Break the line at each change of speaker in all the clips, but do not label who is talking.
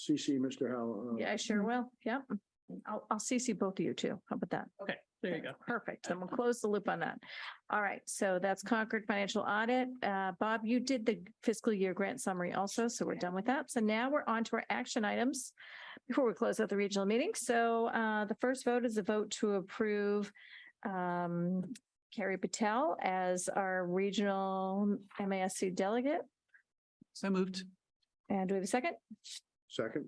CC Mr. Howell. uh,
Yeah, I
Mm-hmm.
sure will. Yep. I'll, I'll CC both of you too. How about that?
Okay, there you go.
Perfect. Then we'll close the loop on that. All right. So that's Concord Financial Audit. Uh, Bob, you did the fiscal year grant summary also, so we're done with that. So now we're on to our action items before we close out the regional meeting. So, uh, the first vote is a vote to approve, um, Carrie Patel as our regional MASC delegate.
So moved.
And do we have a second?
Second,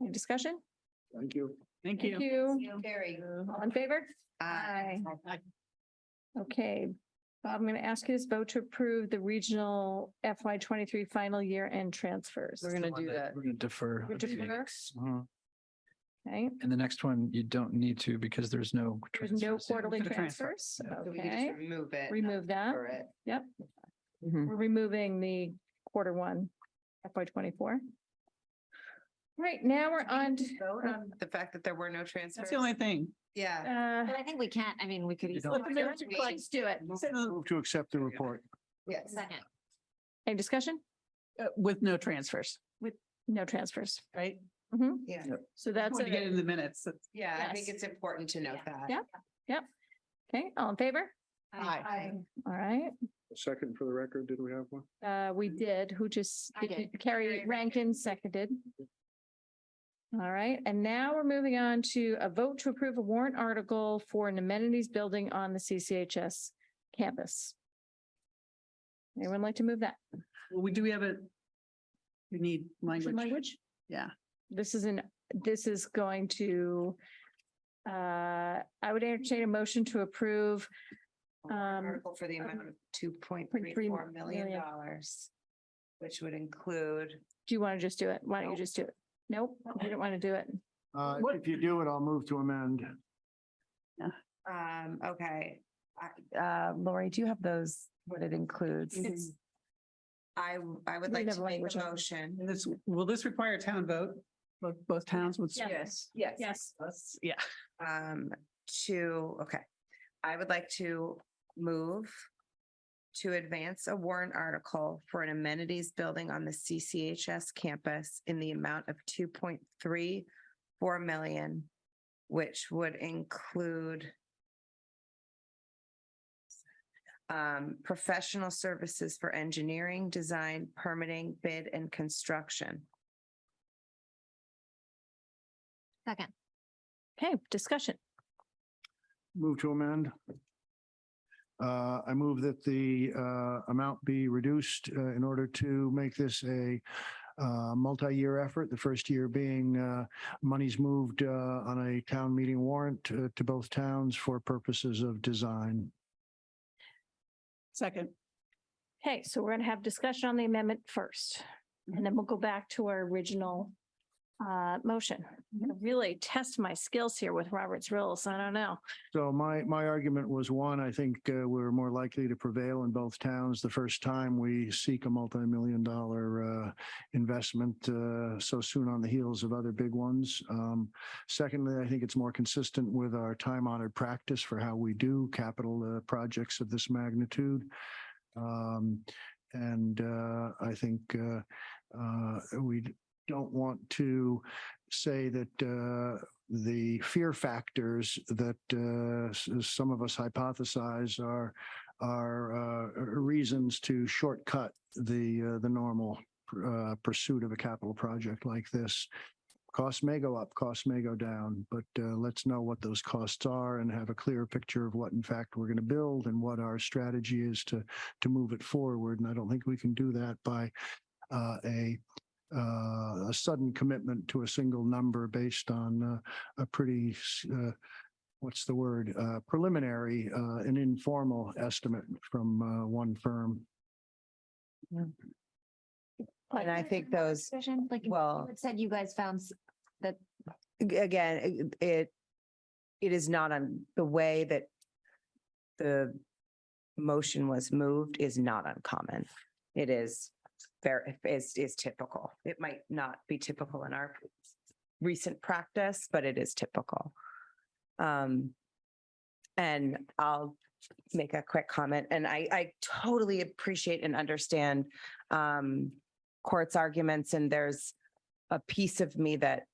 Any discussion?
thank you.
Thank you.
You.
Carrie.
All in favor? Aye. Okay, Bob, I'm going to ask you to vote to approve the regional FY twenty-three final year end transfers.
We're gonna do that.
We're gonna defer.
We
a few
defer?
weeks. Mhm.
Okay,
And the next one, you don't need to because there's no.
there's no
transfers in.
quarterly
For the transfer.
transfers.
Yeah.
So we can
Okay,
just remove it.
remove that.
For it.
Yep, we're removing the quarter one FY twenty-four. Right, now we're on, to-
Vote on The fact that there were no transfers.
That's the only thing.
Yeah.
uh,
But I think we can't, I mean, we could.
You
easily-
don't-
let's do it.
Move to accept the report.
Yes.
Second.
Any discussion?
Uh, With no transfers,
No transfers. Mm-hmm.
right?
Yeah.
So that's,
Want to get
it.
in the minutes. That's-
Yeah, I think
Yes.
it's important to note
Yeah.
that.
Yeah. okay, all in favor?
Aye.
All right,
Second for the record, did we have one?
uh, we did, who just,
Mm. I
did you-
did.
Carrie
Carrie
Rankin seconded. All right, and now we're moving on to a vote to approve a warrant article for an amenities building on the CCHS campus. Anyone like to move that?
Well, we do we have a, we need
Some
language.
Language?
Yeah.
This is an, this is going to, uh, I would entertain a motion to approve Um,
Article for the amount of two point three
3
four million
million.
dollars, which would include.
Do you want to just do it? Why don't you just do it? Nope, you don't want to do it.
Uh,
What-
if you do it, I'll move to amend.
Um, okay. I- Uh, Lori, do you have those, what it includes?
It's-
I, I
Mm-hmm. We
would like
have
to make
language
a
on it.
motion.
And This, will this require a town vote? Both, both towns would.
Yeah.
Yes.
Yes.
Us, Yeah.
Um, to, okay, I would like to move to advance a warrant article for an amenities building on the CCHS campus in the amount of two point three four million, which would include um, professional services for engineering, design, permitting, bid, and construction.
Second.
Okay, discussion.
Move to amend. Uh, I move that the, uh, amount be reduced, uh, in order to make this a, uh, multi-year effort. The first year being, uh, money's moved, uh, on a town meeting warrant uh, to both towns for purposes of design.
Second.
Okay, so we're going to have discussion on the amendment first, and then we'll go back to our original uh, motion. I'm going to really test my skills here with Robert's rules. I don't know.
So my, my argument was one, I think uh, we're more likely to prevail in both towns the first time we seek a multi-million dollar uh, investment uh, so soon on the heels of other big ones. Um, Secondly, I think it's more consistent with our time honored practice for how we do capital uh, projects of this magnitude. Um, And uh, I think uh, uh, we don't want to say that uh, the fear factors that uh, s- some of us hypothesize are are uh, reasons to shortcut the uh, the normal uh, pursuit of a capital project like this. Costs may go up, costs may go down, but uh, let's know what those costs are and have a clear picture of what, in fact, we're going to build and what our strategy is to to move it forward. And I don't think we can do that by uh, a uh, a sudden commitment to a single number based on uh, a pretty, s- uh, what's the word, Uh, preliminary, uh, an informal estimate from uh, one firm.
And I think those,
Discussion, like, you
well.
had said you guys found s-
ag- again, it- it, it is not on, the way that the motion was moved is not uncommon. It is very, is, is typical. It might not be typical in our recent practice, but it is typical. Um, and I'll make a quick comment, and I, I totally appreciate and understand um, court's arguments, and there's a piece of me that